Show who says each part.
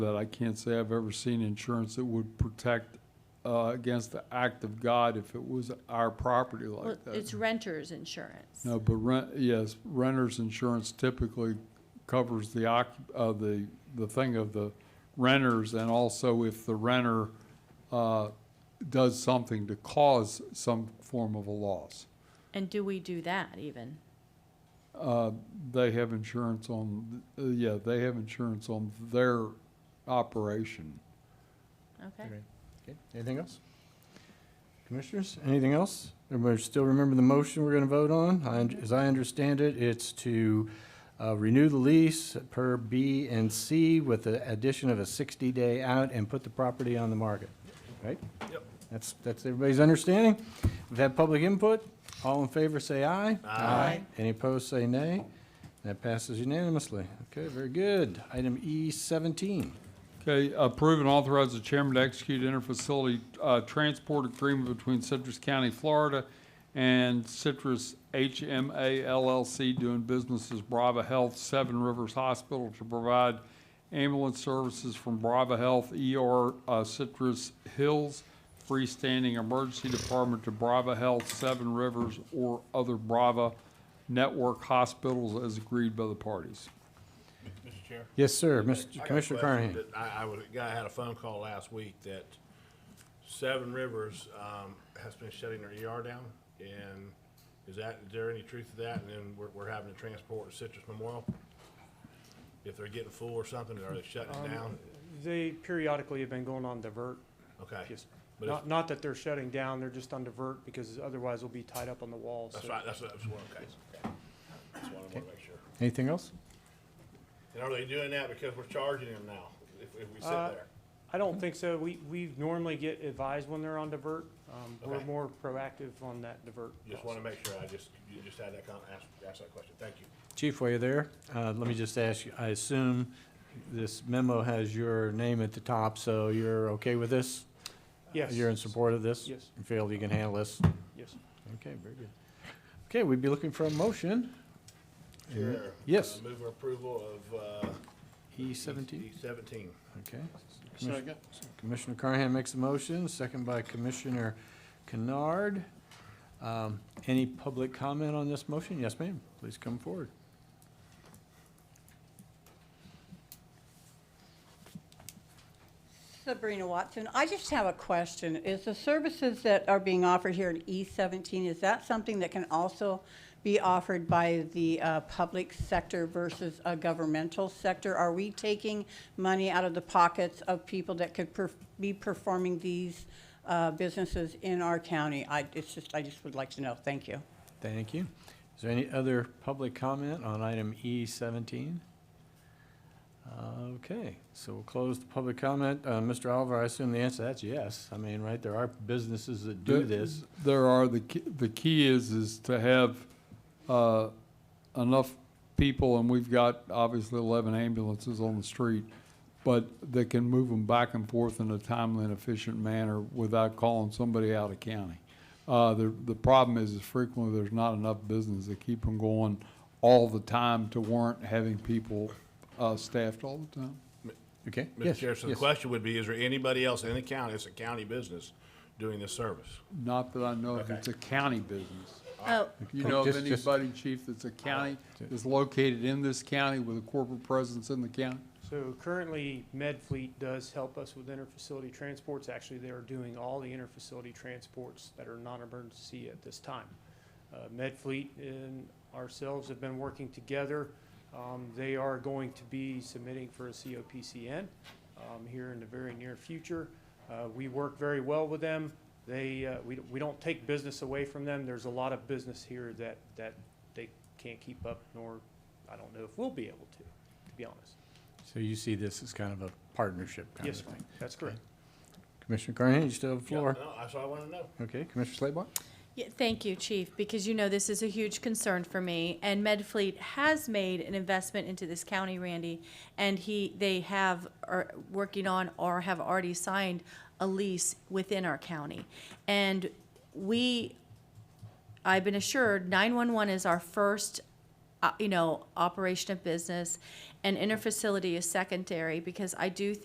Speaker 1: that I can't say I've ever seen insurance that would protect uh, against the act of God if it was our property
Speaker 2: Well,
Speaker 1: like that.
Speaker 2: it's renter's insurance.
Speaker 1: No, but rent, yes, renter's insurance typically covers the occup, uh, the, the thing of the renters and also if the renter, uh, does something to cause some form of a loss.
Speaker 2: And do we do that even?
Speaker 1: Uh, they have insurance on, uh, yeah, they have insurance on their operation.
Speaker 2: Okay.
Speaker 3: Okay, anything else? Commissioners, anything else? Everybody still remember the motion we're gonna vote on? I un- As I understand it, it's to uh, renew the lease per B and C with the addition of a sixty-day out and put the property on the market, right? Yep. That's, that's everybody's understanding. We've had public input. All in favor, say aye. Aye. Any opposed, say nay. That passes unanimously. Okay, very good. Item E seventeen.
Speaker 1: Okay, approve and authorize the chairman to execute interfacility uh, transport agreement between Citrus County, Florida and Citrus HMA LLC doing business as Brava Health Seven Rivers Hospital to provide ambulance services from Brava Health ER uh, Citrus Hills freestanding emergency department to Brava Health Seven Rivers or other Brava network hospitals as agreed by the parties.
Speaker 4: Mr. Chair.
Speaker 3: Yes, sir.
Speaker 4: I got
Speaker 3: Mr.
Speaker 4: a
Speaker 3: Commissioner
Speaker 4: question
Speaker 3: Carnahan.
Speaker 4: that I, I was, a guy had a phone call last week that Seven Rivers, um, has been shutting their ER down, and is that, is there any truth to that? And then we're, we're having to transport to Citrus Memorial? If they're getting full or something, are they shutting
Speaker 5: Um,
Speaker 4: it down?
Speaker 5: They periodically have been going on divert,
Speaker 4: Okay,
Speaker 5: just,
Speaker 4: but if-
Speaker 5: not, not that they're shutting down, they're just on divert because otherwise they'll be tied up on the wall,
Speaker 4: that's
Speaker 5: so-
Speaker 4: right, that's, that's one, okay. That's what I wanna make sure.
Speaker 3: Anything else?
Speaker 4: And are they doing that because we're charging them now, if, if we sit
Speaker 5: Uh,
Speaker 4: there?
Speaker 5: I don't think so. We, we normally get advised when they're on divert. Um, we're
Speaker 4: Okay.
Speaker 5: more proactive on that divert.
Speaker 4: Just wanna make sure, I just, you just had that, con- ask, ask that question, thank you.
Speaker 3: Chief, while you're there, uh, let me just ask you, I assume this memo has your name at the top, so you're okay with this?
Speaker 5: Yes,
Speaker 3: You're in support of this?
Speaker 5: Yes.
Speaker 3: You feel you can handle this?
Speaker 5: yes.
Speaker 3: Okay, very good. Okay, we'd be looking for a motion.
Speaker 4: Chair.
Speaker 3: Mm-hmm. Yes.
Speaker 4: uh, Move approval of, uh.
Speaker 3: E seventeen,
Speaker 4: E seventeen.
Speaker 3: okay. Commissioner- Commissioner Carnahan makes a motion, second by Commissioner Kennard. Um, Any public comment on this motion? Yes, ma'am, please come forward.
Speaker 6: Sabrina Watson, I just have a question. Is the services that are being offered here in E-17, is that something that can also be offered by the uh, public sector versus a governmental sector? Are we taking money out of the pockets of people that could perf- be performing these uh, businesses in our county? I, it's just, I just would like to know. Thank you.
Speaker 3: Thank you. Is there any other public comment on item E seventeen? Okay, so we'll close the public comment. Uh, Mr. Oliver, I assume the answer to that's yes. I mean, right, there are businesses that do
Speaker 1: There-
Speaker 3: this.
Speaker 1: There are, the, key- the key is, is to have uh, enough people, and we've got obviously 11 ambulances on the street, but that can move them back and forth in a timely and efficient manner without calling somebody out of county. Uh, The, the problem is, is frequently there's not enough business to keep them going all the time to warrant having people uh, staffed all the time.
Speaker 3: Okay?
Speaker 4: Mr.
Speaker 3: yes,
Speaker 4: Chair, so the
Speaker 3: yes.
Speaker 4: question would be, is there anybody else in the county, it's a county business, doing this service?
Speaker 1: Not that I know if it's a county business.
Speaker 2: Oh,
Speaker 1: If you know of
Speaker 3: Just- just-
Speaker 1: anybody, chief, that's a county, is located in this county with a corporate presence in the county?
Speaker 5: So currently, MedFleet does help us with interfacility transports. Actually, they are doing all the interfacility transports that are non-emergency at this time. Uh, MedFleet and ourselves have been working together. Um, They are going to be submitting for a COPCN um, here in the very near future. Uh, We work very well with them. They, uh, we we don't take business away from them. There's a lot of business here that, that they can't keep up, nor, I don't know if we'll be able to, to be honest.
Speaker 3: So you see this as kind of a partnership kind of
Speaker 5: Yes,
Speaker 3: thing?
Speaker 5: that's correct.
Speaker 3: Commissioner Carnahan, you still have the floor.
Speaker 4: No, that's what I wanna know.
Speaker 3: Okay, Commissioner Slabaugh?
Speaker 2: yeah, thank you, Chief, because you know this is a huge concern for me. And MedFleet has made an investment into this county, Randy, and he, they have, are working on or have already signed a lease within our county. And we I've been assured 911 is our first, uh, you know, operation of business, and interfacility is secondary because I do